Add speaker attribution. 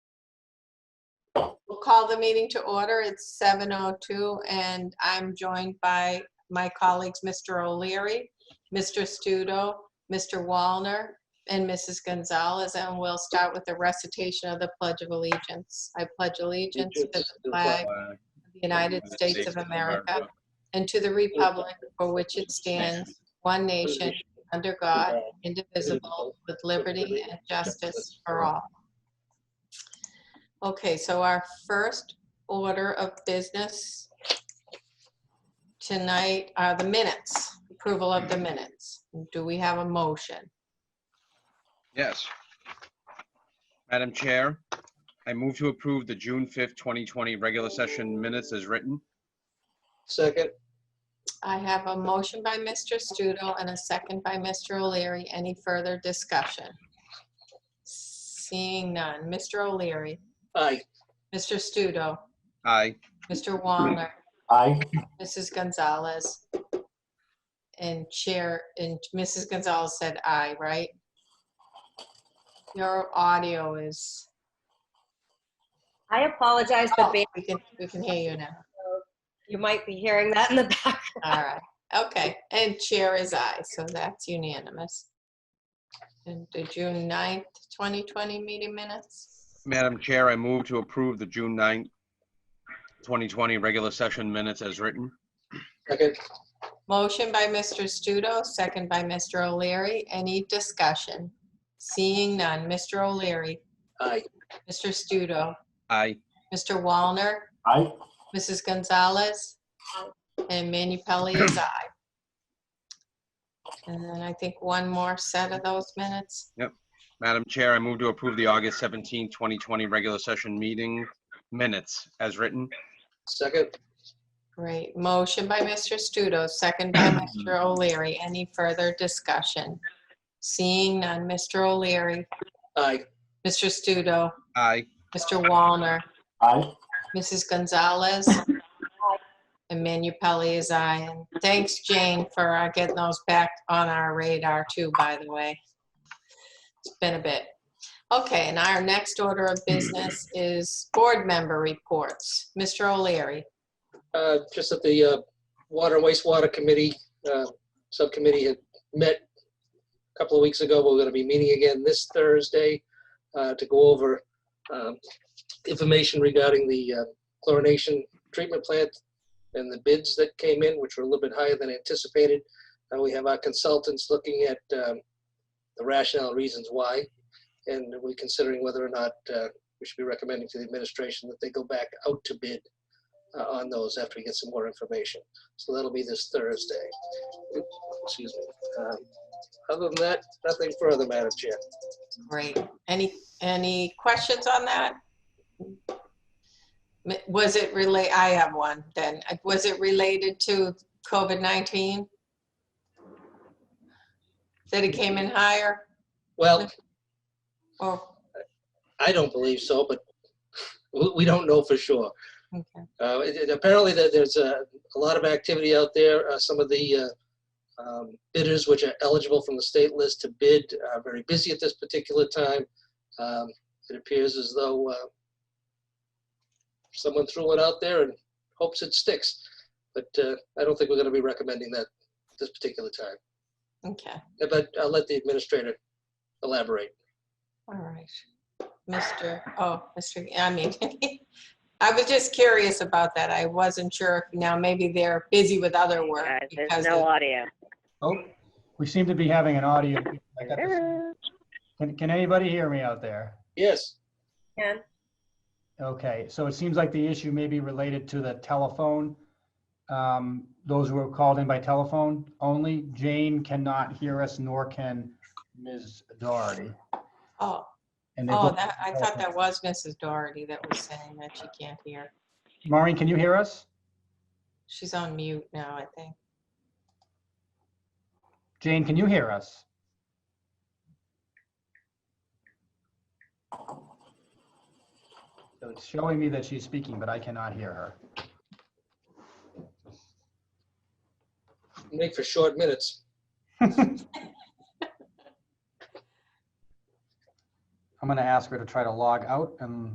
Speaker 1: call the meeting to order. It's 7:02, and I'm joined by my colleagues, Mr. O'Leary, Mr. Studo, Mr. Wallner, and Mrs. Gonzalez, and we'll start with the recitation of the Pledge of Allegiance. I pledge allegiance to the flag of the United States of America and to the republic for which it stands, one nation, under God, indivisible, with liberty and justice for all. Okay, so our first order of business tonight are the minutes, approval of the minutes. Do we have a motion?
Speaker 2: Yes. Madam Chair, I move to approve the June 5th, 2020 regular session minutes as written.
Speaker 3: Second,
Speaker 1: I have a motion by Mr. Studo and a second by Mr. O'Leary. Any further discussion? Seeing none. Mr. O'Leary,
Speaker 3: aye.
Speaker 1: Mr. Studo,
Speaker 2: Aye.
Speaker 1: Mr. Wallner,
Speaker 3: Aye.
Speaker 1: Mrs. Gonzalez, and Chair, and Mrs. Gonzalez said aye, right? Your audio is,
Speaker 4: I apologize,
Speaker 1: oh,
Speaker 4: but ba-
Speaker 1: we can, we can hear you now.
Speaker 4: you might be hearing that in the back.
Speaker 1: All right, okay, and chair is aye, so that's unanimous. And the June 9th, 2020 meeting minutes?
Speaker 2: Madam Chair, I move to approve the June 9th, 2020 regular session minutes as written.
Speaker 3: Second,
Speaker 1: Motion by Mr. Studo, second by Mr. O'Leary. Any discussion? Seeing none. Mr. O'Leary,
Speaker 3: aye.
Speaker 1: Mr. Studo,
Speaker 2: Aye.
Speaker 1: Mr. Wallner,
Speaker 3: Aye.
Speaker 1: Mrs. Gonzalez, and Manu Pelley is aye. And then I think one more set of those minutes.
Speaker 2: Madam Chair, I move to approve the August 17th, 2020 regular session meeting minutes as written.
Speaker 3: Second,
Speaker 1: Great. Motion by Mr. Studo, second by Mr. O'Leary. Any further discussion? Seeing none. Mr. O'Leary,
Speaker 3: aye.
Speaker 1: Mr. Studo,
Speaker 2: Aye.
Speaker 1: Mr. Wallner,
Speaker 3: Aye.
Speaker 1: Mrs. Gonzalez, and Manu Pelley is aye. And thanks, Jane, for uh, getting those back on our radar too, by the way. It's been a bit. Okay, and our next order of business is board member reports. Mr. O'Leary.
Speaker 3: Uh, just that the, uh, Water and Wastewater Committee, uh, Subcommittee had met a couple of weeks ago. We're gonna be meeting again this Thursday, uh, to go over, um, information regarding the uh, chlorination treatment plant and the bids that came in, which were a little bit higher than anticipated. And we have our consultants looking at, um, the rationale and reasons why. And we're considering whether or not, uh, we should be recommending to the administration that they go back out to bid uh, on those after we get some more information. So that'll be this Thursday. Oop, Excuse me. Um, Other than that, nothing further, Madam Chair.
Speaker 1: Great. Any, any questions on that? M- Was it relate, I have one then. Uh, Was it related to COVID-19? That it came in higher Oh,
Speaker 3: Well,
Speaker 1: or,
Speaker 3: I don't believe so, but we- we don't know for sure.
Speaker 1: okay,
Speaker 3: Uh, it- it- Apparently, there- there's a a lot of activity out there. Uh, Some of the uh, um, bidders which are eligible from the state list to bid are very busy at this particular time. Um, It appears as though uh, someone threw it out there and hopes it sticks. But uh, I don't think we're going to be recommending that this particular time.
Speaker 1: okay,
Speaker 3: Uh, But I'll let the administrator elaborate.
Speaker 1: all right. Mr., oh, Mr., I mean, I was just curious about that. I wasn't sure if now maybe they're busy with other work.
Speaker 5: Guys,
Speaker 1: because
Speaker 5: there's
Speaker 1: of-
Speaker 5: no audio.
Speaker 6: Oh, we seem to be having an audio. I got this.
Speaker 5: Hello.
Speaker 6: Can, can anybody hear me out there?
Speaker 3: Yes,
Speaker 4: Ken?
Speaker 6: Okay, so it seems like the issue may be related to the telephone. Um, Those who are called in by telephone only. Jane cannot hear us, nor can Ms. Doherty.
Speaker 1: Oh,
Speaker 6: And they
Speaker 1: oh,
Speaker 6: both,
Speaker 1: that, I thought that was Mrs. Doherty that was saying that she can't hear.
Speaker 6: Maureen, can you hear us?
Speaker 1: She's on mute now, I think.
Speaker 6: Jane, can you hear us? So It's showing me that she's speaking, but I cannot hear her.
Speaker 3: make for short minutes.
Speaker 6: I'm going to ask her to try to log out and